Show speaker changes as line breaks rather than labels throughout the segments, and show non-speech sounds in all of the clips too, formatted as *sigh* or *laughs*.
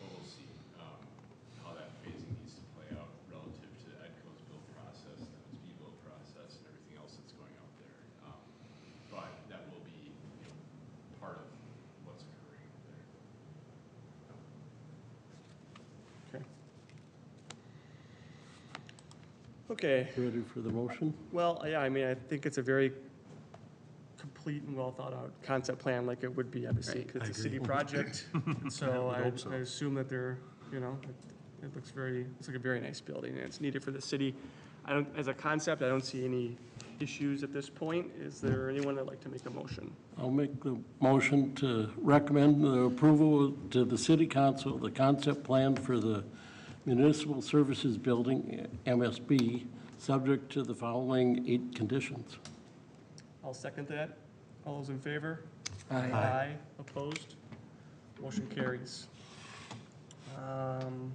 um, Um,
Okay,
You Ready for the motion?
well, yeah, I mean, I think it's a very complete and well-thought-out concept plan, like it would be, obviously, 'cause
I
it's a
agree.
city
*laughs*
project. So
would
I,
hope so.
I assume that they're, you know, it- it looks very, it's like a very nice building, and it's needed for the city. I don't, as a concept, I don't see any issues at this point. Is there anyone that'd like to make a motion?
I'll make the motion to recommend the approval to the city council, of the concept plan for the municipal services building, MSB, subject to the following eight conditions.
I'll second that. All those in favor? Aye. Opposed? Motion carries. Um,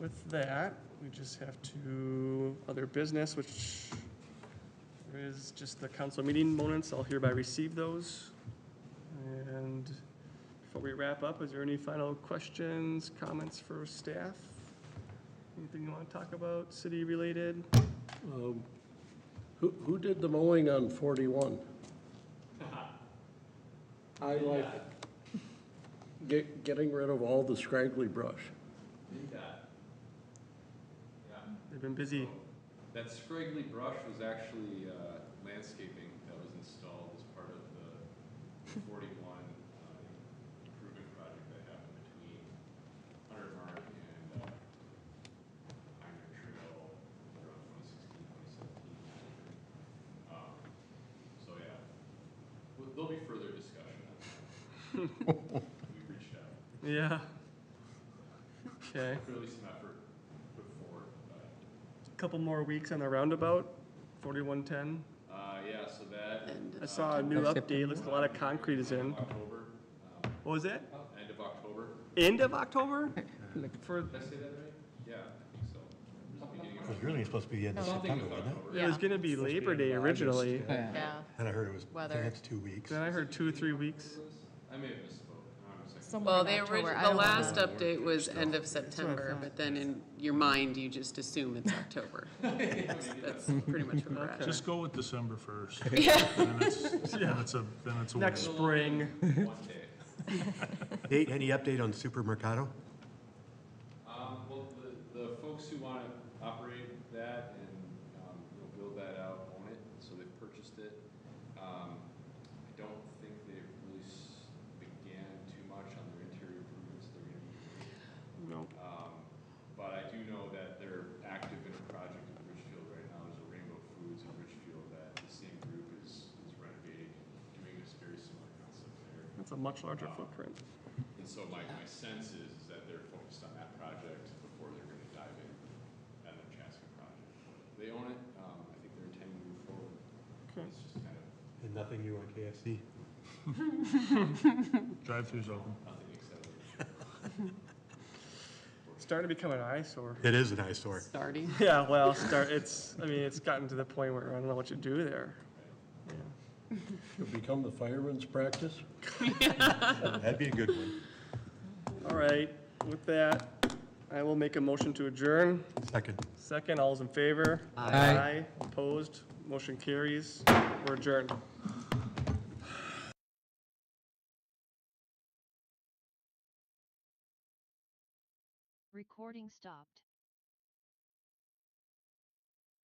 With that, we just have to other business, which there is just the council meeting moments. I'll hereby receive those. And before we wrap up, is there any final questions, comments for staff? Anything you want to talk about, city-related?
Um, Who, who did the mowing on 41? I like get, getting rid of all the scraggly brush.
They've been busy.
That scraggly brush was actually uh, landscaping that was installed as part of the 41 uh, improvement project that happened between Hunter Mark and uh, Pioneer Trail around 2016, 2017. Um, So, yeah, Well, there'll be further discussion on that. We've reached out,
Yeah. Okay.
clearly some effort put forward, but
Couple more weeks on the roundabout, forty-one ten.
Uh, yeah, so that.
I saw a new update, looks a lot of concrete is in.
October, um,
What was that?
end of October.
End of October? For,
Did I say that right? Yeah, I think so. Or is it beginning of
It was really supposed to be the end of
October? Something
September,
with
wasn't it?
October.
it was
Yeah.
gonna be Labor Day originally,
Yeah,
And I heard it was the
Weather.
next two weeks.
then I heard two, three weeks.
I may have misspoke. I'm a second.
somewhere
Well,
in
the
October.
original,
I
the
don't know.
last update was end of September, but then in your mind, you just assume it's October. That's that's pretty much where we're at.
Just go with December first. Then it's, then it's a, then it's a win.
Next spring,
One day.
Nate, any update on Supermercado?
Um, well, the, the folks who wanna operate that and, um, you know, build that out own it, so they purchased it. Um, I don't think they've really s- began too much on their interior improvements they're gonna be doing.
no,
Um, But I do know that they're active in a project in Richfield right now, there's a Rainbow Foods in Richfield that the same group is is renovating, doing this very similar concept there.
that's a much larger footprint.
And so my, my sense is, is that they're focused on that project before they're gonna dive in at the Chaska project. They own it, um, I think they're intending to move forward,
Okay.
it's just kind of
And nothing new on KFC?
Drive-throughs open.
nothing exciting.
Starting to become an eyesore.
It is an eyesore.
Starting.
*laughs* Yeah, well, start, it's, I mean, it's gotten to the point where I don't know what you do there.
Could become the fireman's practice.
That'd be a good one.
All right, with that, I will make a motion to adjourn.
Second.
Second, all's in favor?
Aye.
Opposed? Motion carries. We're adjourned.
Recording stopped.